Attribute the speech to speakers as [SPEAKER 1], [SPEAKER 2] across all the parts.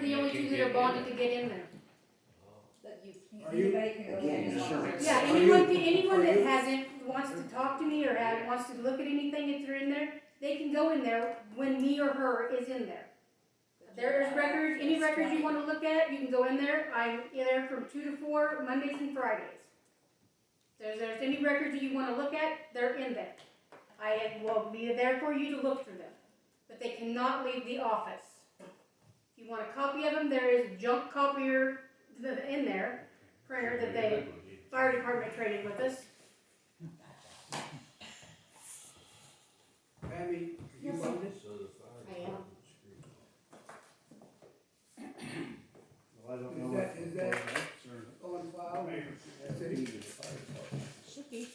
[SPEAKER 1] the only two that are bonded to get in there.
[SPEAKER 2] That you
[SPEAKER 3] Are
[SPEAKER 2] can't,
[SPEAKER 3] you-
[SPEAKER 2] anybody can go.
[SPEAKER 4] Again,
[SPEAKER 2] in.
[SPEAKER 4] insurance.
[SPEAKER 1] Yeah,
[SPEAKER 3] Are
[SPEAKER 1] anyone,
[SPEAKER 3] you-
[SPEAKER 1] anyone
[SPEAKER 3] are
[SPEAKER 1] that
[SPEAKER 3] you-
[SPEAKER 1] hasn't, wants to talk to me or ha wants to look at anything if they're in there, they can go in there when me or her is in there. There's records, any records you wanna look at, you can go in there, I'm in there from two to four, Mondays and Fridays. There's, there's any records you wanna look at, they're in there. I will be there for you to look through them, but they cannot leave the office. If you want a copy of them, there is junk copier in there, printer that they fire department training with us.
[SPEAKER 3] Abby, are you
[SPEAKER 2] Yes, sir.
[SPEAKER 3] bonded?
[SPEAKER 1] I am.
[SPEAKER 5] Well, I don't
[SPEAKER 3] Is
[SPEAKER 5] know.
[SPEAKER 3] that-
[SPEAKER 5] if-
[SPEAKER 3] is that- On file? That's it.
[SPEAKER 2] Should be.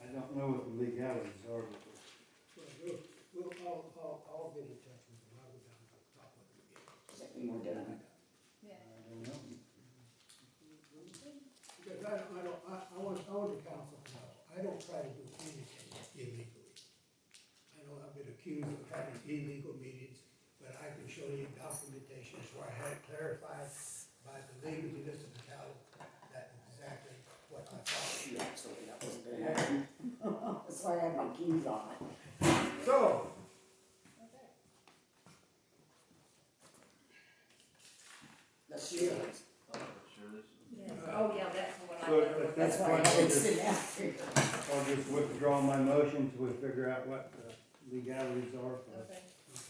[SPEAKER 5] I don't know what the legalities are, but
[SPEAKER 6] We'll, I'll, I'll, I'll get in touch with him, I'll go down and talk with him again.
[SPEAKER 4] Second, we're done.
[SPEAKER 5] I don't know.
[SPEAKER 6] Because I don't, I don't, I, I want, I want the council to know, I don't try to do anything illegally. I know I've been accused of having illegal meetings, but I can show you documentation where I had it clarified by the legal municipality that exactly what I thought.
[SPEAKER 4] Shoot, actually, that wasn't gonna happen. That's why I have my keys on.
[SPEAKER 6] So,
[SPEAKER 4] Let's shoot.
[SPEAKER 2] Yes. Oh, yeah, that's the one I.
[SPEAKER 5] So,
[SPEAKER 2] thought.
[SPEAKER 5] but
[SPEAKER 4] That's why I would sit down here.
[SPEAKER 5] I'll just withdraw my motion till we figure out what the legalities are for
[SPEAKER 2] Okay.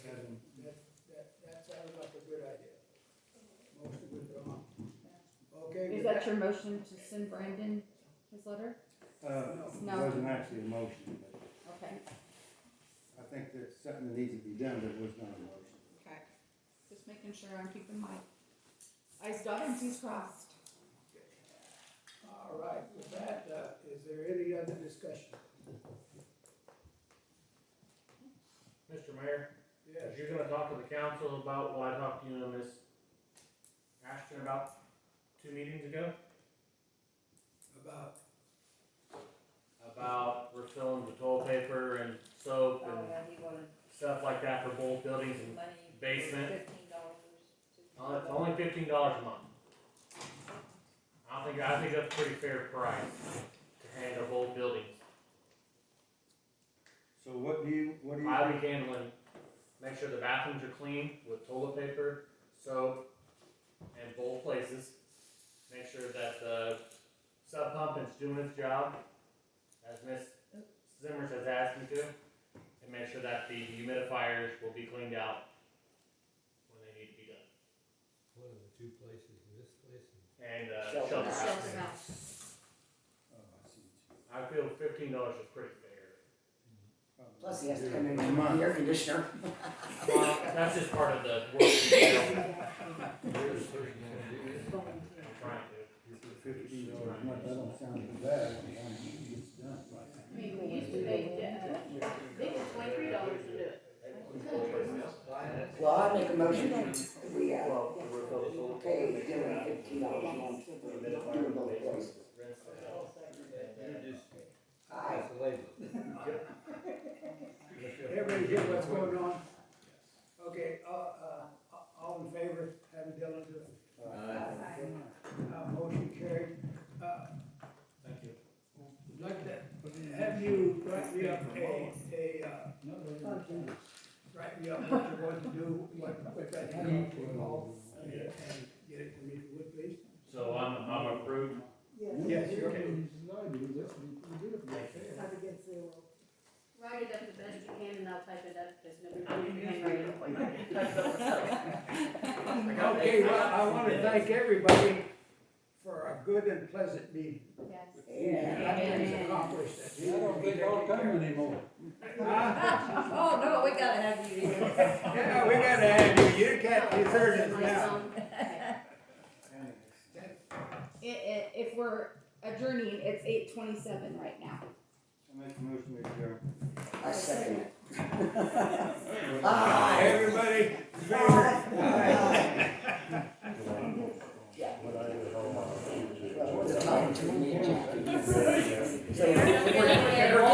[SPEAKER 5] having.
[SPEAKER 6] that, that sounds like a good idea. Motion withdrawn. Okay.
[SPEAKER 7] Is
[SPEAKER 6] with
[SPEAKER 7] that your motion to send Brandon his letter?
[SPEAKER 5] Uh, it
[SPEAKER 7] No.
[SPEAKER 5] wasn't actually a motion, but
[SPEAKER 7] Okay.
[SPEAKER 5] I think that's something that needs to be done, but it was not a motion.
[SPEAKER 7] Okay. Just making sure I'm keeping my eyes dotted and T's crossed.
[SPEAKER 6] All right, with that, uh, is there any other discussion?
[SPEAKER 8] Mr. Mayor, if you're gonna talk to the council about what I talked to you and Miss Ashton about two meetings ago,
[SPEAKER 6] About,
[SPEAKER 8] about refilling the toilet paper and soap
[SPEAKER 2] Oh,
[SPEAKER 8] and
[SPEAKER 2] yeah, he wanted
[SPEAKER 8] stuff like that for both buildings and
[SPEAKER 2] money.
[SPEAKER 8] Basement.
[SPEAKER 2] Fifteen dollars.
[SPEAKER 8] uh, it's only fifteen dollars a month. I think, I think that's a pretty fair price to handle both buildings.
[SPEAKER 5] So what do you, what do you?
[SPEAKER 8] I
[SPEAKER 5] think?
[SPEAKER 8] be handling, make sure the bathrooms are clean with toilet paper, soap, and both places. Make sure that the sub pump is doing its job, as Miss Zimmers has asked me to. And make sure that the humidifiers will be cleaned out when they need to be done.
[SPEAKER 9] One of the two places, this place and
[SPEAKER 8] And, uh, shelter
[SPEAKER 4] Shelter house.
[SPEAKER 8] house.
[SPEAKER 2] Shelter house.
[SPEAKER 5] Oh, I see what you-
[SPEAKER 8] I feel fifteen dollars is pretty fair.
[SPEAKER 5] oh,
[SPEAKER 4] Plus, he has to come in
[SPEAKER 5] yeah,
[SPEAKER 4] and
[SPEAKER 5] month.
[SPEAKER 4] run the air conditioner.
[SPEAKER 8] Well, that's just part of the work.
[SPEAKER 9] Where's the person gonna do this?
[SPEAKER 8] I'm trying to.
[SPEAKER 5] Fifteen dollars a month, that don't sound too bad, as long as it gets done right.
[SPEAKER 1] I mean, we used to pay, uh, they were twenty-three dollars to do it.
[SPEAKER 4] Well, I make a motion that we, uh, pay Dylan fifteen dollars a month for doing both places.
[SPEAKER 9] You just,
[SPEAKER 4] Aye.
[SPEAKER 9] that's the label.
[SPEAKER 6] everybody hear what's going on? Okay, uh, uh, all in favor, having Dylan do it, uh, motion carried. Uh,
[SPEAKER 8] Thank you.
[SPEAKER 6] I'd like to have you write me up a, a, uh, write me up what you want to do, what, what that handbook will involve, and and get it to me, if you would please.
[SPEAKER 8] So I'm, I'm approved.
[SPEAKER 6] Yes, you're okay.
[SPEAKER 1] Write it up the best you can and I'll type it up, there's no reason to handwrite it.
[SPEAKER 6] Okay, well, I wanna thank everybody for a good and pleasant meeting.
[SPEAKER 7] Yes.
[SPEAKER 4] Amen.
[SPEAKER 6] Nothing's accomplished.
[SPEAKER 9] I don't think I'll come anymore.
[SPEAKER 6] Huh?
[SPEAKER 2] Oh, no, we gotta have you here.
[SPEAKER 6] Yeah, we gotta have you, you can't desert us
[SPEAKER 1] My
[SPEAKER 6] now.
[SPEAKER 1] song.
[SPEAKER 5] Anyway.
[SPEAKER 7] I- i- if we're adjourning, it's eight twenty-seven right now.
[SPEAKER 6] Ah,